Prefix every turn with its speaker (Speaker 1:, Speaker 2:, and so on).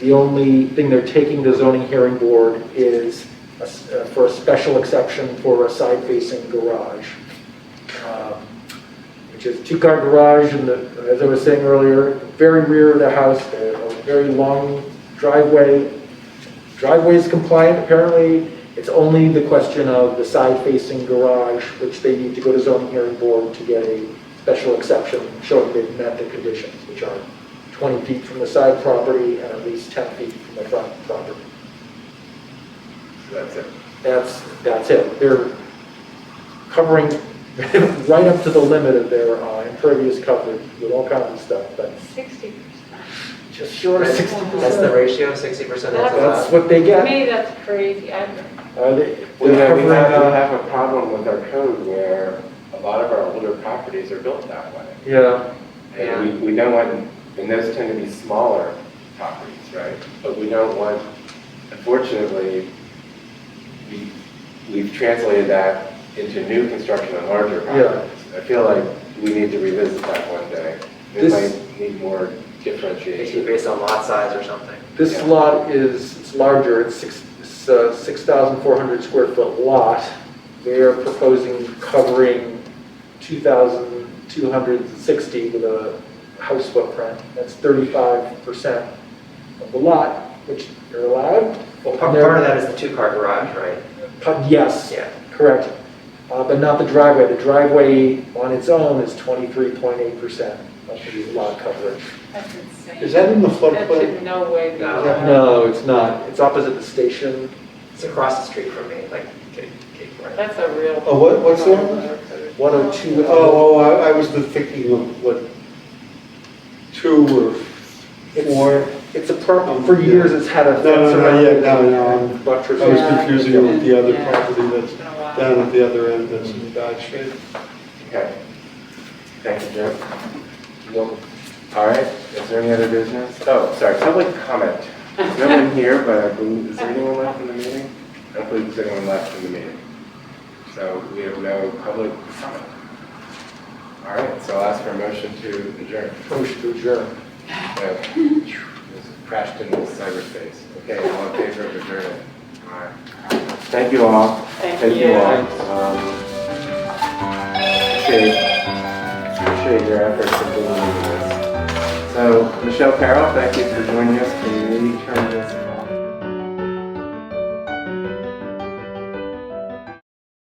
Speaker 1: The only thing they're taking to zoning hearing board is a s- uh, for a special exception for a side-facing garage, um, which is two-car garage, and the- as I was saying earlier, very rear of the house, a a very long driveway. Driveway's compliant, apparently, it's only the question of the side-facing garage, which they need to go to zoning hearing board to get a special exception, showing they've met the conditions, which are 20 feet from the side property and at least 10 feet from the front property.
Speaker 2: That's it.
Speaker 1: That's, that's it. They're covering right up to the limit of their uh, impervious coverage with all kinds of stuff, but
Speaker 3: Sixty
Speaker 1: just short of 60%.
Speaker 4: That's the ratio, sixty percent is
Speaker 1: That's
Speaker 4: allowed.
Speaker 1: what they
Speaker 3: To
Speaker 1: get.
Speaker 3: me, that's crazy. I
Speaker 1: Uh, they-
Speaker 2: We
Speaker 1: they're
Speaker 2: have, uh, we now
Speaker 1: covering-
Speaker 2: have a problem with our code where a lot of our older properties are built that way.
Speaker 1: Yeah,
Speaker 2: And we, we don't want, and those tend to be smaller properties, right? But we don't want, unfortunately, we, we've translated that into new construction on larger
Speaker 1: Yeah.
Speaker 2: properties. I feel like we need to revisit that one day. It
Speaker 1: This-
Speaker 2: might need more
Speaker 4: It should be
Speaker 2: differentiation.
Speaker 4: based on lot size or something.
Speaker 1: this
Speaker 2: Yeah.
Speaker 1: lot is, it's larger, it's six, it's, uh, 6,400 square foot lot. They're proposing covering 2,260 with a house footprint. That's 35% of the lot, which you're allowed.
Speaker 4: Well, part, part of that is the two-car garage, right?
Speaker 1: Pu- Yes,
Speaker 4: Yeah.
Speaker 1: correct. Uh, But not the driveway. The driveway on its own is 23.8% of the lot coverage.
Speaker 3: that's insane.
Speaker 5: Is that in the
Speaker 3: That
Speaker 5: floodplain?
Speaker 3: should no way be.
Speaker 4: No.
Speaker 3: allowed.
Speaker 1: No, it's not. It's opposite the station.
Speaker 4: It's across the street from me, like, Cape, Cape Coral.
Speaker 3: That's a real.
Speaker 5: Oh, what, what's that?
Speaker 1: 102.
Speaker 5: Oh, oh, I, I was the thinking of what, two or four. Um,
Speaker 1: It's a purple, for years it's had a
Speaker 5: No,
Speaker 1: fence
Speaker 5: no, no,
Speaker 1: around
Speaker 5: yeah,
Speaker 1: it.
Speaker 5: no, no, I'm- I
Speaker 1: Buttress.
Speaker 5: was confusing it with the other
Speaker 3: Yeah.
Speaker 5: property
Speaker 3: It's
Speaker 5: that's
Speaker 3: been a while.
Speaker 5: down at the other end that's in Dodge Street.
Speaker 2: Okay. Thank you, Jim. Nope. All right, is there any other business? Oh, sorry, public comment. There's no one here, but I believe, is there anyone left in the meeting? I don't believe there's anyone left in the meeting. So we have no public comment. All right, so I'll ask for a motion to adjourn.
Speaker 1: Motion to adjourn.
Speaker 2: Uh, this Crashed into cyberspace. Okay, all in favor of adjournment? All right. Thank you all. Thank you all. Um, Appreciate, appreciate your efforts in doing this. So, Michelle Carroll, thank you for joining us. Can you turn this